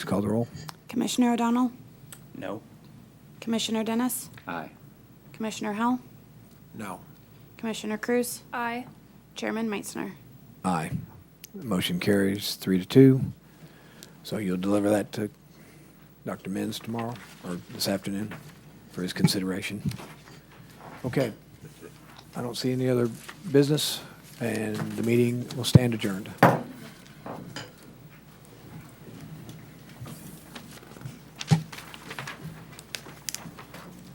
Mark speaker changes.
Speaker 1: Please call the roll.
Speaker 2: Commissioner O'Donnell?
Speaker 3: No.
Speaker 2: Commissioner Dennis?
Speaker 3: Aye.
Speaker 2: Commissioner Howell?
Speaker 1: No.
Speaker 2: Commissioner Cruz?
Speaker 4: Aye.
Speaker 2: Chairman Meitzner?
Speaker 1: Aye. The Motion carries three to two. So you'll deliver that to Dr. Menz tomorrow or this afternoon for his consideration. Okay. I don't see any other business, and the meeting will stand adjourned.